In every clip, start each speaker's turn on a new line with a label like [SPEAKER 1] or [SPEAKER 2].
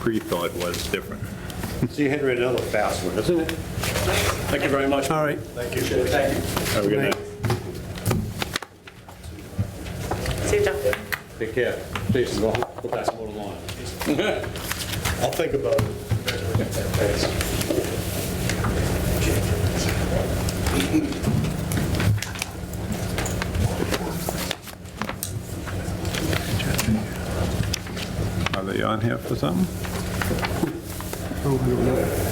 [SPEAKER 1] pre-thought was different.
[SPEAKER 2] See, Henry, another fast one, isn't it? Thank you very much.
[SPEAKER 3] All right.
[SPEAKER 2] Thank you. Thank you.
[SPEAKER 1] Have a good night.
[SPEAKER 4] See you, John.
[SPEAKER 2] Take care. Please, go go pass more along. I'll think about it.
[SPEAKER 1] Are they on here for something?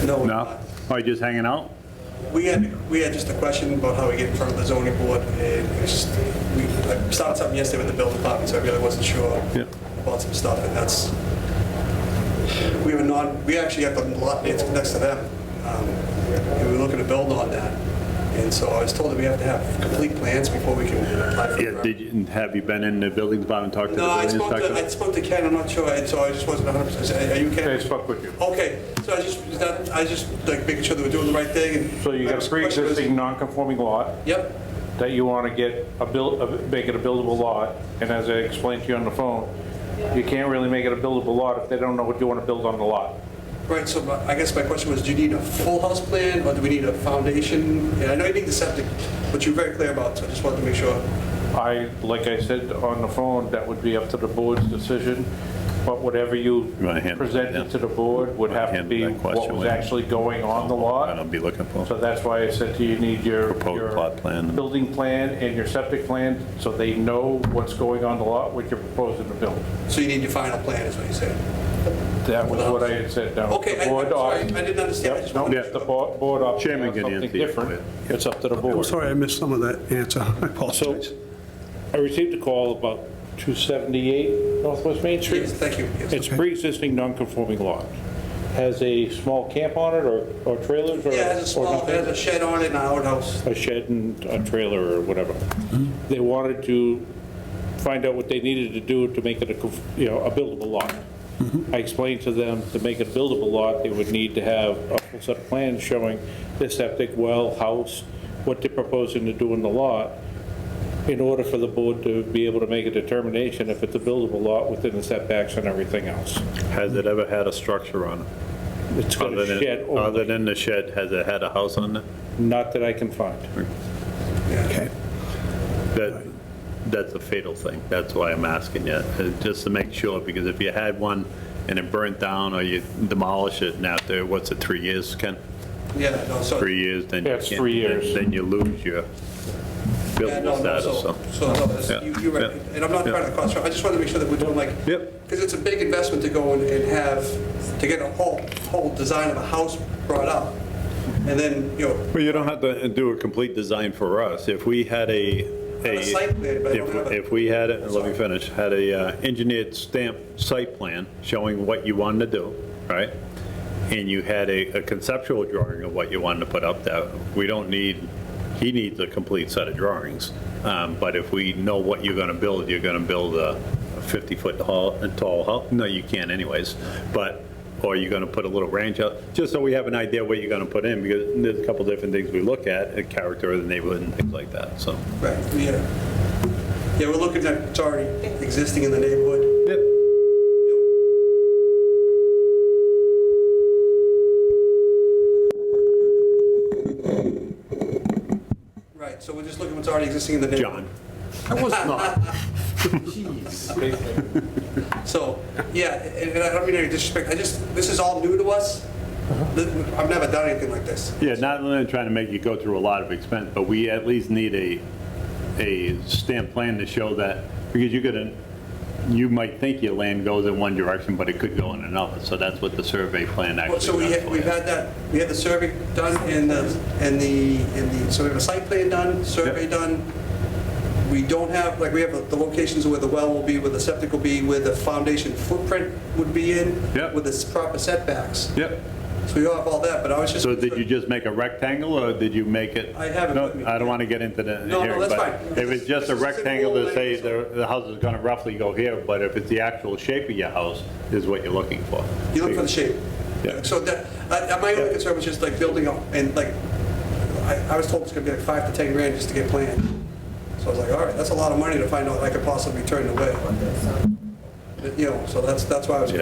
[SPEAKER 5] No.
[SPEAKER 1] No? Are you just hanging out?
[SPEAKER 5] We had, we had just a question about how we get in front of the zoning board, and it's just- we, I started something yesterday with the building department, so I really wasn't sure
[SPEAKER 1] Yeah.
[SPEAKER 5] about some stuff, and that's, we have a non, we actually have the lot, it's next to them, um, and we were looking to build on that, and so I was told that we have to have complete plans before we can apply for.
[SPEAKER 1] Yeah, did you, have you been in the building department, talked to the
[SPEAKER 5] No, I
[SPEAKER 1] building
[SPEAKER 5] spoke to, I
[SPEAKER 1] inspector?
[SPEAKER 5] spoke to Ken, I'm not sure, and so I just wasn't 100%, are you Ken?
[SPEAKER 6] I spoke with you.
[SPEAKER 5] Okay, so I just, is that- I just, like, making sure that we're doing the right thing, and.
[SPEAKER 6] So you got a pre-existing non-conforming lot
[SPEAKER 5] Yep.
[SPEAKER 6] that you want to get a build, a- make it a buildable lot, and as I explained to you on the phone, you can't really make it a buildable lot if they don't know what you want to build on the lot.
[SPEAKER 5] Right, so my- I guess my question was, do you need a full house plan, or do we need a foundation? And I know you need the septic, but you're very clear about, it, so I just wanted to make sure.
[SPEAKER 6] I, like I said on the phone, that would be up to the board's decision, but whatever you
[SPEAKER 1] You wanna handle that, yeah.
[SPEAKER 6] presented to the board would have to
[SPEAKER 1] Handle
[SPEAKER 6] be
[SPEAKER 1] that
[SPEAKER 6] what
[SPEAKER 1] question
[SPEAKER 6] was
[SPEAKER 1] later.
[SPEAKER 6] actually going on the
[SPEAKER 1] I
[SPEAKER 6] lot.
[SPEAKER 1] don't be looking for.
[SPEAKER 6] So that's why I said to you, you need your.
[SPEAKER 1] Proposed
[SPEAKER 6] your
[SPEAKER 1] plot plan.
[SPEAKER 6] Building plan and your septic plan, so they know what's going on the lot, what you're proposing to build.
[SPEAKER 5] So you need your final plan, is what you said?
[SPEAKER 6] That was what I had said, no.
[SPEAKER 5] Okay,
[SPEAKER 6] the
[SPEAKER 5] I- I'm
[SPEAKER 6] board
[SPEAKER 5] sorry,
[SPEAKER 6] op-
[SPEAKER 5] I didn't understand. I
[SPEAKER 6] Yep,
[SPEAKER 5] just
[SPEAKER 6] No,
[SPEAKER 5] wanted
[SPEAKER 6] if the bo- board opts to
[SPEAKER 1] Chairman
[SPEAKER 6] have
[SPEAKER 1] can
[SPEAKER 6] something
[SPEAKER 1] answer you.
[SPEAKER 6] different, it's up to the
[SPEAKER 3] I'm
[SPEAKER 6] board.
[SPEAKER 3] sorry I missed some of that answer. I
[SPEAKER 6] So,
[SPEAKER 3] apologize.
[SPEAKER 6] I received a call about 278 Northwest Main Street.
[SPEAKER 5] Yes, thank you. Yes.
[SPEAKER 6] It's pre-existing non-conforming lot. Has a small camp on it or or trailers or...
[SPEAKER 5] Yeah, it has a
[SPEAKER 6] or
[SPEAKER 5] small,
[SPEAKER 6] nothing?
[SPEAKER 5] it has a shed on it and an outhouse.
[SPEAKER 6] a shed and a trailer or whatever.
[SPEAKER 1] Mm-hmm.
[SPEAKER 6] They wanted to find out what they needed to do to make it a, conf- you know, a buildable lot.
[SPEAKER 1] Mm-hmm.
[SPEAKER 6] I explained to them, to make it a buildable lot, they would need to have a full set of plans showing the septic well, house, what they're proposing to do in the lot, in order for the board to be able to make a determination if it's a buildable lot within the setbacks and everything else.
[SPEAKER 1] Has it ever had a structure on it?
[SPEAKER 6] It's got
[SPEAKER 1] Other
[SPEAKER 6] a
[SPEAKER 1] than-
[SPEAKER 6] shed, or-
[SPEAKER 1] Other than the shed, has it had a house on it?
[SPEAKER 6] not that I can find.
[SPEAKER 3] Okay.
[SPEAKER 1] That, that's a fatal thing. That's why I'm asking you, uh, just to make sure, because if you had one and it burnt down or you demolish it and after, what's it, three years, Ken?
[SPEAKER 5] Yeah, no, so.
[SPEAKER 1] Three years, then you
[SPEAKER 6] Yeah, it's
[SPEAKER 1] can't-
[SPEAKER 6] three years.
[SPEAKER 1] Then you lose your
[SPEAKER 5] Yeah, no,
[SPEAKER 1] building
[SPEAKER 5] no,
[SPEAKER 1] status,
[SPEAKER 5] so,
[SPEAKER 1] so.
[SPEAKER 5] so, no, that's-
[SPEAKER 1] Yeah,
[SPEAKER 5] you- you're right,
[SPEAKER 1] yeah,
[SPEAKER 5] and I'm not trying to cost, I just want to make sure that we're doing like.
[SPEAKER 1] Yep.
[SPEAKER 5] Because it's a big investment to go and and have, to get a whole, whole design of a house brought up, and then, you know,
[SPEAKER 1] Well, you don't have to do a complete design for us. If we had a, a,
[SPEAKER 5] a site plan, but I don't
[SPEAKER 1] if-
[SPEAKER 5] have a-
[SPEAKER 1] if we had, it, let me finish, had a uh, engineered stamp site plan showing what you wanted to do, right? And you had a a conceptual drawing of what you wanted to put up there, we don't need, he needs a complete set of drawings. Um, But if we know what you're going to build, you're going to build a 50-foot tall, tall house, no, you can't anyways, but or you're going to put a little ranch out, just so we have an idea what you're going to put in, because there's a couple different things we look at, the character of the neighborhood and things like that, so.
[SPEAKER 5] Right, yeah. Yeah, we're looking at, it's already existing in the neighborhood. Right, so we're just looking what's already existing in the neighborhood.
[SPEAKER 1] John,
[SPEAKER 3] I was not.
[SPEAKER 5] So, yeah, and and I don't mean any disrespect, I just, this is all new to us. Th- I've never done anything like this.
[SPEAKER 1] yeah, not only trying to make you go through a lot of expense, but we at least need a, a stamp plan to show that, because you're going to, you might think your land goes in one direction, but it could go in another, so that's what the survey plan actually
[SPEAKER 5] Well,
[SPEAKER 1] does
[SPEAKER 5] So we, ha-
[SPEAKER 1] for
[SPEAKER 5] we've
[SPEAKER 1] you.
[SPEAKER 5] had that, we had the survey done and the, and the, and the, so we have a site plan done, survey
[SPEAKER 1] Yep.
[SPEAKER 5] done. We don't have, like, we have the locations where the well will be, where the septic will be, where the foundation footprint would be in.
[SPEAKER 1] Yep.
[SPEAKER 5] With the proper setbacks.
[SPEAKER 1] Yep,
[SPEAKER 5] So we all have all that, but I was just.
[SPEAKER 1] so did you just make a rectangle, or did you make it?
[SPEAKER 5] I have it
[SPEAKER 1] No,
[SPEAKER 5] with me.
[SPEAKER 1] I don't want to get into the.
[SPEAKER 5] No, no,
[SPEAKER 1] here,
[SPEAKER 5] that's
[SPEAKER 1] but
[SPEAKER 5] fine.
[SPEAKER 1] If it's just a
[SPEAKER 5] It's a
[SPEAKER 1] rectangle to
[SPEAKER 5] simple
[SPEAKER 1] say
[SPEAKER 5] layout.
[SPEAKER 1] the, the house is going to roughly go here, but if it's the actual shape of your house, is what you're looking for.
[SPEAKER 5] You look for the shape.
[SPEAKER 1] Yeah.
[SPEAKER 5] So that, I- I- my only concern was just like building up, and like, I, I was told it's gonna be like five to 10 grand just to get planned. So I was like, all right, that's a lot of money to find out I could possibly turn away. But, You know, so that's, that's why I was.